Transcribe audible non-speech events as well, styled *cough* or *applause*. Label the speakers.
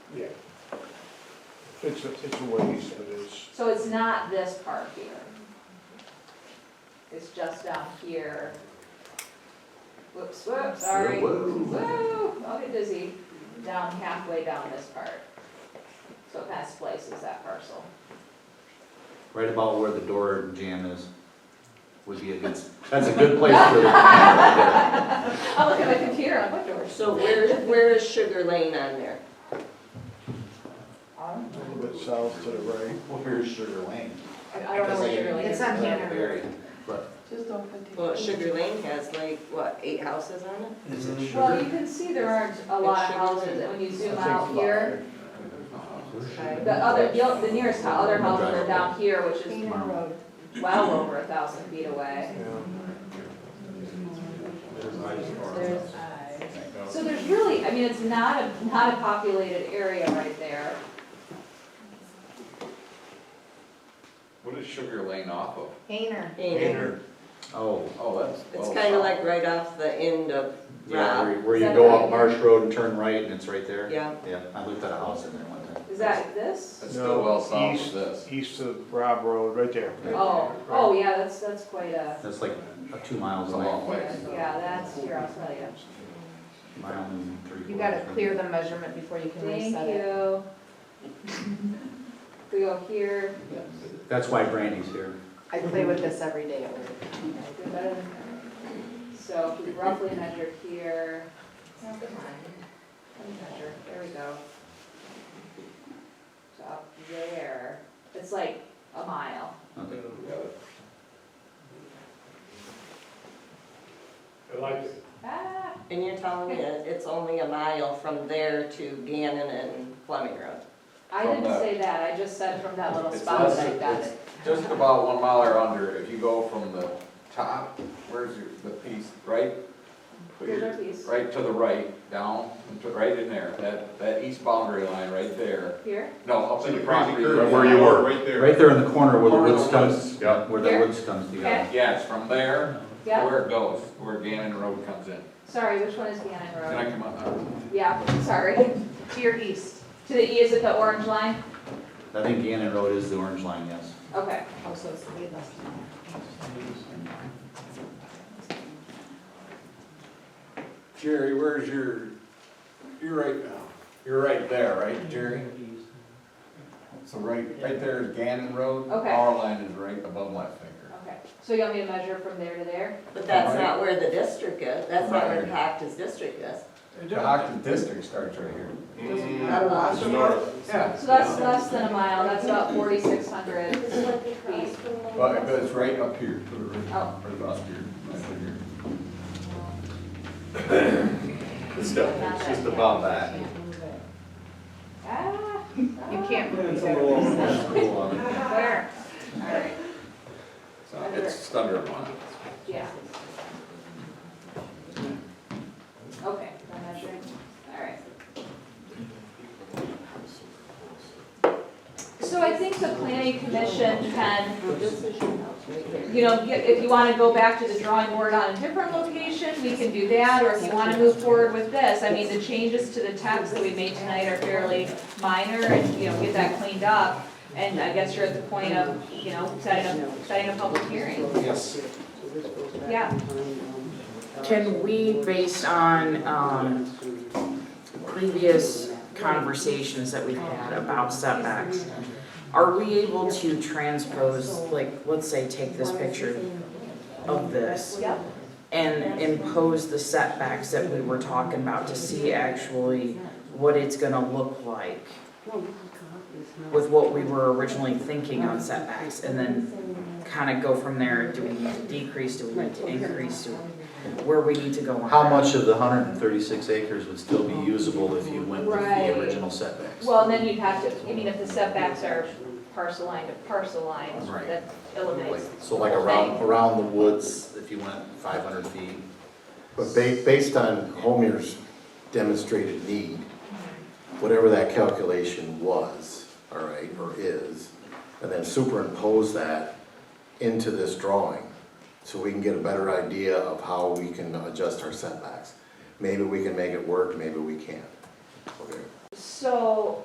Speaker 1: yeah. It's a, it's a ways, but it's,
Speaker 2: So it's not this part here. It's just down here. Whoops, whoops, sorry.
Speaker 3: Whoa,
Speaker 2: Woo, I'll get dizzy. Down halfway down this part. So it kind of splices that parcel.
Speaker 3: Right about where the door jam is would be a good, that's a good place for the.
Speaker 2: I'll look at my computer, I'm like, doors.
Speaker 4: So where, where is Sugar Lane on there?
Speaker 2: I
Speaker 1: a little bit south to the right.
Speaker 3: Where's Sugar Lane?
Speaker 2: I don't know what you're really.
Speaker 5: It's on Hanover.
Speaker 3: Very, But
Speaker 5: Just open the.
Speaker 4: Well, Sugar Lane has like, what, eight houses on it?
Speaker 3: is
Speaker 1: Mm-hmm.
Speaker 3: it
Speaker 2: Well,
Speaker 3: Sugar?
Speaker 2: you can see there aren't a lot of houses, and when you zoom out here, the other, you'll- the nearest hou- other houses are down here, which is
Speaker 5: Cleaner road.
Speaker 2: well over a thousand feet away.
Speaker 5: There's eyes.
Speaker 2: So there's really, I mean, it's not a, not a populated area right there.
Speaker 6: What is Sugar Lane off of?
Speaker 5: Hayner.
Speaker 4: And
Speaker 3: Oh,
Speaker 6: Oh, that's.
Speaker 4: it's
Speaker 6: well
Speaker 4: kinda
Speaker 6: south.
Speaker 4: like right off the end of,
Speaker 3: yeah, where- where you
Speaker 2: Is that
Speaker 3: go
Speaker 2: right
Speaker 3: up Marsh Road and turn right and it's right there?
Speaker 4: yeah,
Speaker 3: Yeah, I looked at a house in there one time.
Speaker 2: Is that this?
Speaker 6: That's
Speaker 1: No,
Speaker 6: still well south
Speaker 1: east.
Speaker 6: of this.
Speaker 1: East of Rob Road, right there.
Speaker 2: Oh, oh, yeah, that's, that's quite a,
Speaker 3: That's like uh, two miles
Speaker 6: It's a
Speaker 3: away,
Speaker 6: long way.
Speaker 2: yeah, that's, here, I'll tell you.
Speaker 3: mile and three quarters.
Speaker 5: You gotta
Speaker 3: from
Speaker 5: clear
Speaker 3: here.
Speaker 5: the measurement before you can
Speaker 2: Thank
Speaker 5: reset it. *laughs*
Speaker 2: you. We go here,
Speaker 3: That's why Brandy's here.
Speaker 5: I play with this every day at work.
Speaker 2: do better than that. So if we roughly measure here. Never mind. Let me measure, there we go. So up there, it's like a mile.
Speaker 3: Okay.
Speaker 7: I like it.
Speaker 2: Ah,
Speaker 4: and you're telling me that it's only a mile from there to Gannon and Fleming Road?
Speaker 2: I
Speaker 6: From
Speaker 2: didn't
Speaker 6: that-
Speaker 2: say that, I just said from that little
Speaker 6: It's
Speaker 2: spot
Speaker 6: less-
Speaker 2: that I got
Speaker 6: it's
Speaker 2: it.
Speaker 6: Just about one mile or under, if you go from the top, where's your, the piece, right? Put
Speaker 2: Here's
Speaker 6: your-
Speaker 2: our piece,
Speaker 6: Right to the right, down, and to- right in there, that, that east boundary line right there.
Speaker 2: here,
Speaker 6: No, up to the property.
Speaker 8: Right
Speaker 6: line.
Speaker 8: Where you were. Right
Speaker 3: Right there in the corner where the
Speaker 6: Corner of
Speaker 3: woods
Speaker 6: the
Speaker 3: comes,
Speaker 8: Yeah.
Speaker 3: where the
Speaker 2: Here?
Speaker 3: woods comes together.
Speaker 6: Yeah, it's from there, to
Speaker 2: yeah,
Speaker 6: where it goes, where Gannon Road comes in.
Speaker 2: sorry, which one is Gannon
Speaker 6: Can I
Speaker 2: Road?
Speaker 6: come up now?
Speaker 2: Yeah, sorry, *laughs*
Speaker 5: To your east.
Speaker 2: to the E, is it the orange line?
Speaker 3: I think Gannon Road is the orange line, yes.
Speaker 2: Okay, Oh,
Speaker 5: Also, it's way less.
Speaker 6: Jerry, where's your, you're right now, you're right there, right, Jerry? So right, right there is Gannon Road.
Speaker 2: Okay.
Speaker 6: Power line is right above my finger.
Speaker 2: okay, so you want me to measure from there to there?
Speaker 4: But that's not where the district is, that's not where Pactus district is.
Speaker 6: The Hockton District starts right here.
Speaker 8: It's north.
Speaker 6: Yeah.
Speaker 2: So that's less than a mile, that's about forty-six hundred feet.
Speaker 6: But, but it's right up here,
Speaker 2: Oh.
Speaker 6: right up here, right here.
Speaker 2: *coughs*
Speaker 8: It's still, it's just above that.
Speaker 2: Ah,
Speaker 5: You
Speaker 2: ah.
Speaker 5: can't move
Speaker 8: That's
Speaker 5: it.
Speaker 8: cool on it.
Speaker 2: Where? All right,
Speaker 6: So it's under a mile.
Speaker 2: yeah. Okay, I'm measuring, all right. So I think the planning commission can
Speaker 4: This is your house right there.
Speaker 2: you know, get- if you want to go back to the drawing board on a different location, we can do that, or if you want to move forward with this. I mean, the changes to the text that we made tonight are fairly minor, and, you know, get that cleaned up. And I guess you're at the point of, you know, setting a, setting a public hearing.
Speaker 3: Yes.
Speaker 2: Yeah,
Speaker 9: Can we, based on um, previous conversations that we've had about setbacks, are we able to transpose, like, let's say, take this picture of this
Speaker 2: yep,
Speaker 9: and impose the setbacks that we were talking about to see actually what it's gonna look like with what we were originally thinking on setbacks, and then kind of go from there, do we need to decrease, do we need to increase, do where we need to go on.
Speaker 3: How much of the hundred and thirty-six acres would still be usable if you went with
Speaker 2: Right.
Speaker 3: the original setbacks?
Speaker 2: well, and then you'd have to, I mean, if the setbacks are parcel line to parcel line,
Speaker 3: Right.
Speaker 2: that eliminates.
Speaker 3: Like- So like around, around the woods, if you went five hundred feet?
Speaker 10: But ba- based on Homer's demonstrated need, whatever that calculation was, all right, or is, and then superimpose that into this drawing, so we can get a better idea of how we can adjust our setbacks. Maybe we can make it work, maybe we can't. Okay.
Speaker 2: So